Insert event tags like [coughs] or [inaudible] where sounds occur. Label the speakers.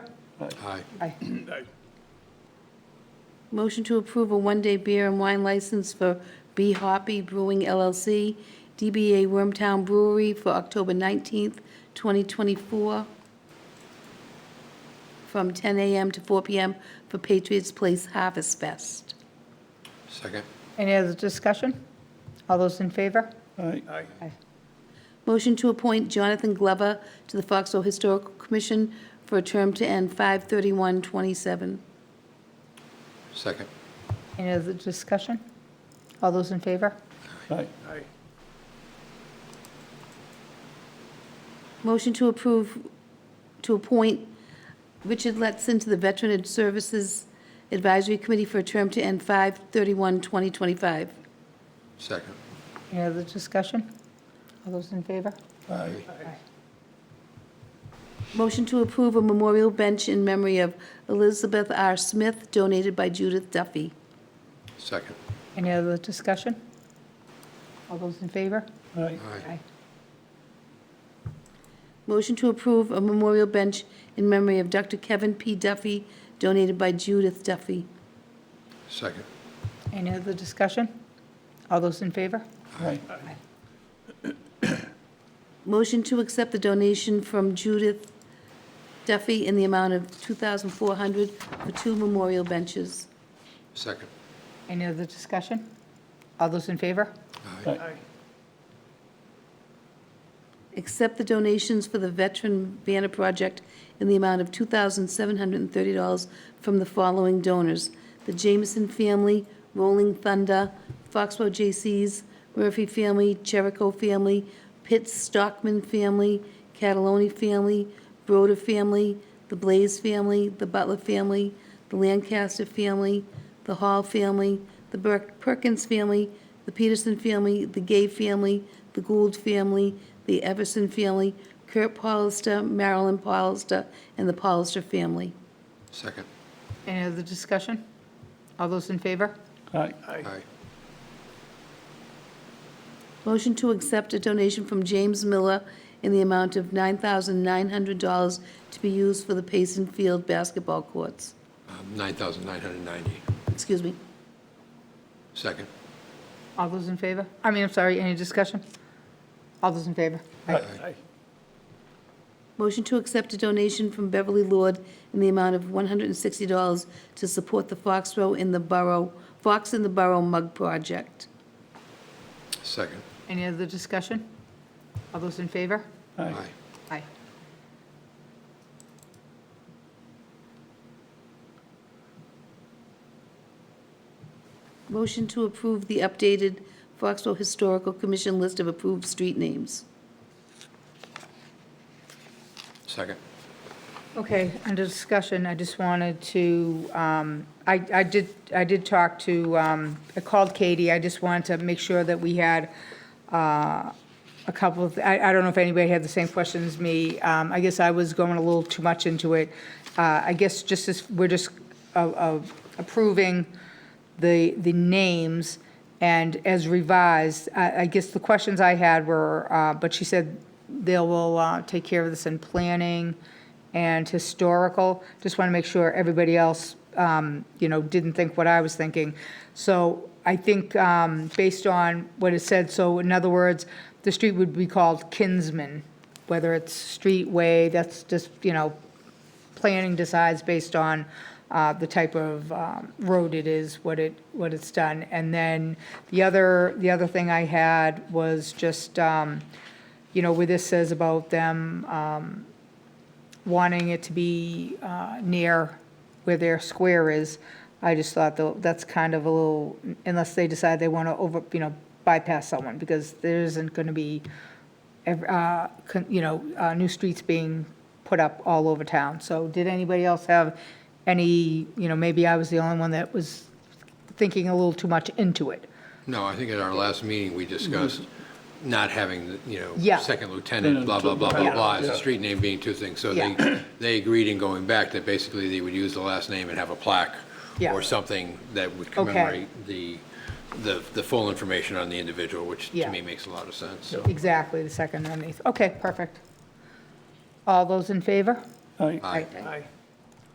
Speaker 1: Aye.
Speaker 2: Aye.
Speaker 3: Motion to approve a one-day beer and wine license for B Hoppy Brewing LLC, DBA Wormtown Brewery for October 19th, 2024, from 10 a.m. to 4 p.m. for Patriots Place Harvest Fest.
Speaker 1: Second.
Speaker 2: Any other discussion? All those in favor?
Speaker 1: Aye.
Speaker 3: Motion to appoint Jonathan Glover to the Foxborough Historical Commission for a term to end 5/31/27.
Speaker 1: Second.
Speaker 2: Any other discussion? All those in favor?
Speaker 4: Aye.
Speaker 3: Motion to approve, to appoint Richard Letson to the Veteran Services Advisory Committee for a term to end 5/31/2025.
Speaker 1: Second.
Speaker 2: Any other discussion? All those in favor?
Speaker 4: Aye.
Speaker 3: Motion to approve a memorial bench in memory of Elizabeth R. Smith, donated by Judith Duffy.
Speaker 1: Second.
Speaker 2: Any other discussion? All those in favor?
Speaker 4: Aye.
Speaker 1: Aye.
Speaker 3: Motion to approve a memorial bench in memory of Dr. Kevin P. Duffy, donated by Judith Duffy.
Speaker 1: Second.
Speaker 2: Any other discussion? All those in favor?
Speaker 4: Aye.
Speaker 3: Motion to accept the donation from Judith Duffy in the amount of $2,400 for two memorial benches.
Speaker 1: Second.
Speaker 2: Any other discussion? All those in favor?
Speaker 1: Aye.
Speaker 4: Aye.
Speaker 3: Accept the donations for the Veteran Banner Project in the amount of $2,730 from the following donors: the Jameson Family, Rolling Thunder, Foxborough J.C.'s, Murphy Family, Jericho Family, Pitts Stockman Family, Cataloni Family, Broder Family, the Blaze Family, the Butler Family, the Lancaster Family, the Hall family, the Ber- Perkins family, the Peterson family, the Gay family, the Gould family, the Everson family, Kurt Paulister, Marilyn Paulister, and the Paulister family.
Speaker 1: Second.
Speaker 2: Any other discussion? All those in favor?
Speaker 4: Aye.
Speaker 1: Aye.
Speaker 3: Motion to accept a donation from James Miller in the amount of $9,900 to be used for the Payson Field basketball courts.
Speaker 1: Um, 9,990.
Speaker 3: Excuse me.
Speaker 1: Second.
Speaker 2: All those in favor? I mean, I'm sorry, any discussion? All those in favor?
Speaker 4: Aye.
Speaker 3: Motion to accept a donation from Beverly Lord in the amount of $160 to support the Foxborough in the Borough, Fox in the Borough Mug Project.
Speaker 1: Second.
Speaker 2: Any other discussion? All those in favor?
Speaker 4: Aye.
Speaker 1: Aye.
Speaker 2: Aye.
Speaker 3: Motion to approve the updated Foxborough Historical Commission list of approved street names.
Speaker 1: Second.
Speaker 2: Okay, under discussion, I just wanted to, um, I I did, I did talk to, um, I called Katie, I just wanted to make sure that we had uh, a couple of, I I don't know if anybody had the same questions as me. Um, I guess I was going a little too much into it. Uh, I guess just as, we're just uh, uh, approving the, the names and as revised, I I guess the questions I had were, uh, but she said they will uh, take care of this in planning and historical. Just want to make sure everybody else, um, you know, didn't think what I was thinking. So I think um, based on what it said, so in other words, the street would be called Kinsman, whether it's street, way, that's just, you know, planning decides based on uh, the type of um, road it is, what it, what it's done. And then the other, the other thing I had was just, um, you know, where this says about them um, wanting it to be uh, near where their square is, I just thought tho- that's kind of a little, unless they decide they want to over, you know, bypass someone, because there isn't going to be ev- uh, con- you know, uh, new streets being put up all over town. So did anybody else have any, you know, maybe I was the only one that was thinking a little too much into it.
Speaker 1: No, I think at our last meeting, we discussed
Speaker 4: Mm-hmm.
Speaker 1: not having, the, you know,
Speaker 2: Yeah.
Speaker 1: second lieutenant, blah, blah, blah, blah,
Speaker 2: Yeah.
Speaker 1: blah, as a street name being two things. So they, [coughs] they agreed in going back that basically they would use the last name and have a plaque
Speaker 2: Yeah.
Speaker 1: or something that would commemorate the, the, the full information on the individual, which to
Speaker 2: Yeah.
Speaker 1: me makes a lot of sense, so.
Speaker 2: Exactly, the second underneath. Okay, perfect. All those in favor?
Speaker 4: Aye.
Speaker 1: Aye.
Speaker 4: Aye.